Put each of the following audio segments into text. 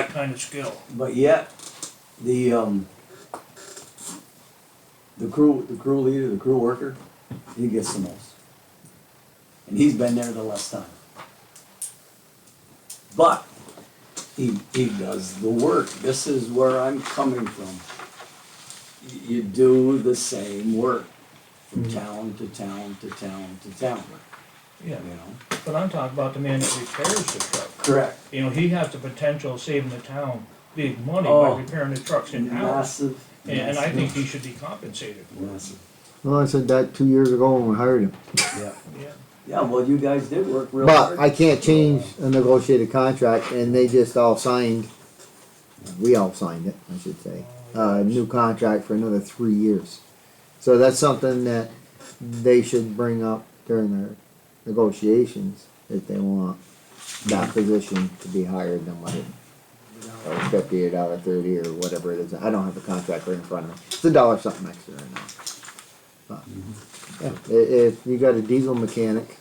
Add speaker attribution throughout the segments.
Speaker 1: that kind of skill.
Speaker 2: But yet, the, um, the crew, the crew leader, the crew worker, he gets the most. And he's been there the less time. But he, he does the work. This is where I'm coming from. Y- You do the same work from
Speaker 3: Mm-hmm.
Speaker 2: town to town to town to town,
Speaker 1: Yeah,
Speaker 2: you know?
Speaker 1: but I'm talking about the man that repairs the truck.
Speaker 2: Correct.
Speaker 1: You know, he has the potential of saving the town big money
Speaker 2: Oh.
Speaker 1: by repairing the trucks in house.
Speaker 2: Massive,
Speaker 1: And, and I think
Speaker 2: massive,
Speaker 1: he should be compensated for it.
Speaker 2: massive.
Speaker 3: Well, I said that two years ago when we hired him.
Speaker 2: Yeah,
Speaker 1: Yeah,
Speaker 2: yeah, well, you guys did work real hard.
Speaker 3: But I can't change a negotiated contract and they just all signed, we all signed it, I should say, a new contract for another three years. So that's something that they should bring up during their negotiations if they want that position to be higher than what it, or fifty, a dollar thirty or whatever it is. I don't have the contract right in front of me. It's a dollar something extra right now. But, yeah, i- if you got a diesel mechanic,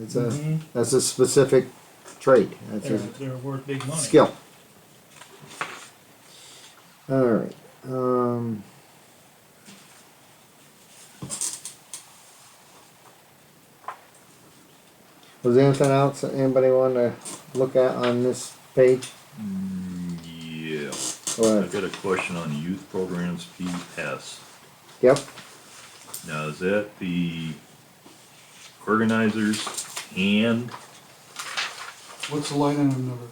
Speaker 3: it's a.
Speaker 1: Mhm.
Speaker 3: That's a specific trade. That's
Speaker 1: they're,
Speaker 3: a
Speaker 1: they're worth big money.
Speaker 3: skill. All right. Um, was there anything else that anybody want to look at on this page?
Speaker 4: Yeah,
Speaker 3: Or,
Speaker 4: I've got a question on youth programs PS.
Speaker 3: yep.
Speaker 4: Now, is that the organizers and,
Speaker 5: What's the line item number?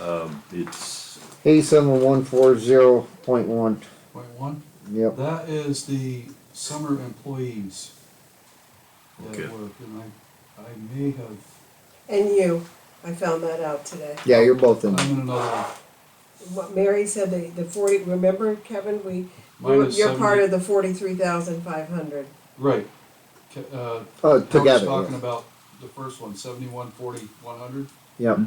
Speaker 4: um, it's,
Speaker 3: Eighty-seven one four zero point one.
Speaker 5: Point one?
Speaker 3: Yep.
Speaker 5: That is the summer employees
Speaker 4: Okay.
Speaker 5: that work, and I, I may have,
Speaker 6: And you, I found that out today.
Speaker 3: Yeah, you're both in.
Speaker 5: I'm in another one.
Speaker 6: What Mary said, the, the forty, remember Kevin, we,
Speaker 5: Mine is
Speaker 6: you're part
Speaker 5: seventy-
Speaker 6: of the forty-three thousand five hundred.
Speaker 5: Right. Ca- Uh,
Speaker 3: Oh,
Speaker 5: Cody's
Speaker 3: together.
Speaker 5: talking
Speaker 3: yeah.
Speaker 5: about the first one, seventy-one, forty, one hundred?
Speaker 3: Yep.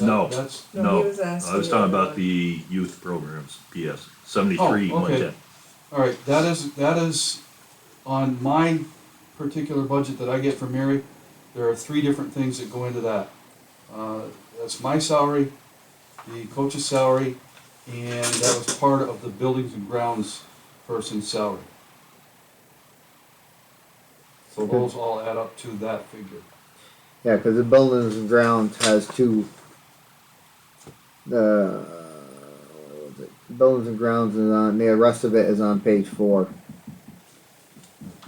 Speaker 4: No.
Speaker 5: That's,
Speaker 4: no,
Speaker 6: he was asking.
Speaker 4: I was talking
Speaker 6: you
Speaker 4: about the youth programs PS, seventy-three,
Speaker 5: Oh,
Speaker 4: one
Speaker 5: okay.
Speaker 4: ten.
Speaker 5: all right, that is, that is on my particular budget that I get from Mary, there are three different things that go into that. Uh, That's my salary, the coach's salary, and that was part of the buildings and grounds person's salary. So those all add up to that figure.
Speaker 3: Yeah, because the buildings and grounds has two. The buildings and grounds is on the rest of it is on page four.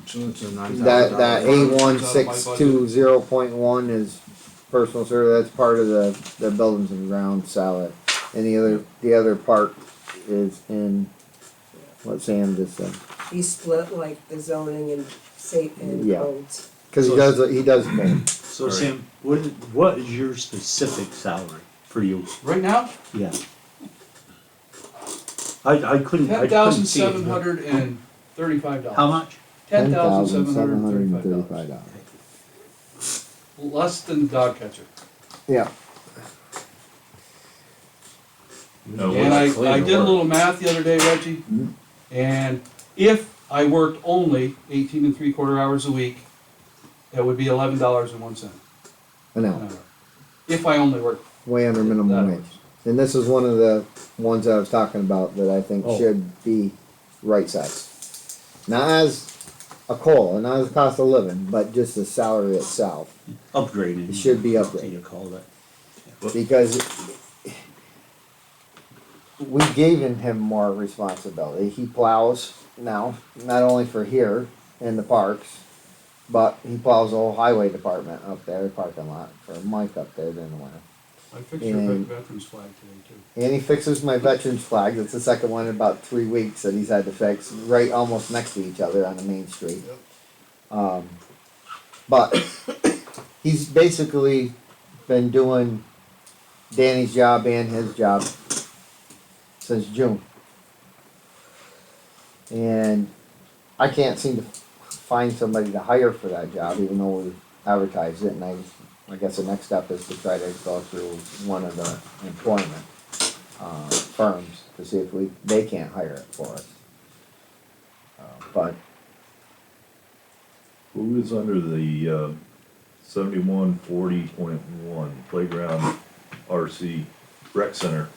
Speaker 7: So it's a nine thousand
Speaker 3: That that
Speaker 5: out
Speaker 3: A
Speaker 5: of my
Speaker 3: one six two zero point one is personal service. That's part of the the buildings and grounds salad, and the other the other part is in what Sam just said
Speaker 6: know. He split like the zoning and state and
Speaker 3: Yeah.
Speaker 6: codes.
Speaker 3: because he does he does both.
Speaker 8: So Sam, what is, what is your specific salary for you?
Speaker 5: Right now,
Speaker 8: Yeah. I, I couldn't, I
Speaker 5: ten
Speaker 8: couldn't
Speaker 5: thousand
Speaker 8: see it.
Speaker 5: seven hundred and thirty-five dollars.
Speaker 8: How much?
Speaker 5: Ten thousand seven hundred and
Speaker 3: $10,735.
Speaker 5: thirty-five dollars. Less than the dog catcher.
Speaker 3: Yeah.
Speaker 4: No,
Speaker 5: And
Speaker 4: what's-
Speaker 5: I, I did a little math the other day, Reggie, and if I worked only eighteen and three quarter hours a week, that would be eleven dollars and one cent
Speaker 3: I
Speaker 5: an
Speaker 3: know,
Speaker 5: hour. If I only worked
Speaker 3: way under minimum
Speaker 5: that
Speaker 3: wage.
Speaker 5: much.
Speaker 3: And this is one of the ones I was talking about that I think
Speaker 8: Oh.
Speaker 3: should be right sized. Not as a call, not as a cost of living, but just the salary itself.
Speaker 8: Upgraded.
Speaker 3: It should be
Speaker 8: What do you
Speaker 3: upgraded
Speaker 8: call that?
Speaker 3: because we gave him more responsibility. He plows now, not only for here in the parks, but he plows the whole highway department up there, parking lot for Mike up there during the winter.
Speaker 5: I fixed your
Speaker 3: And-
Speaker 5: veterans flag today too.
Speaker 3: And he fixes my veterans flag. That's the second one in about three weeks that he's had to fix, right almost next to each other on the main street. Um, but he's basically been doing Danny's job and his job since June. And I can't seem to find somebody to hire for that job, even though we advertised it. And I, I guess the next step is to try to go through one of the employment uh, firms to see if we, they can't hire it for us. Uh, But
Speaker 4: Who is under the, uh, seventy-one, forty point one playground RC rec center.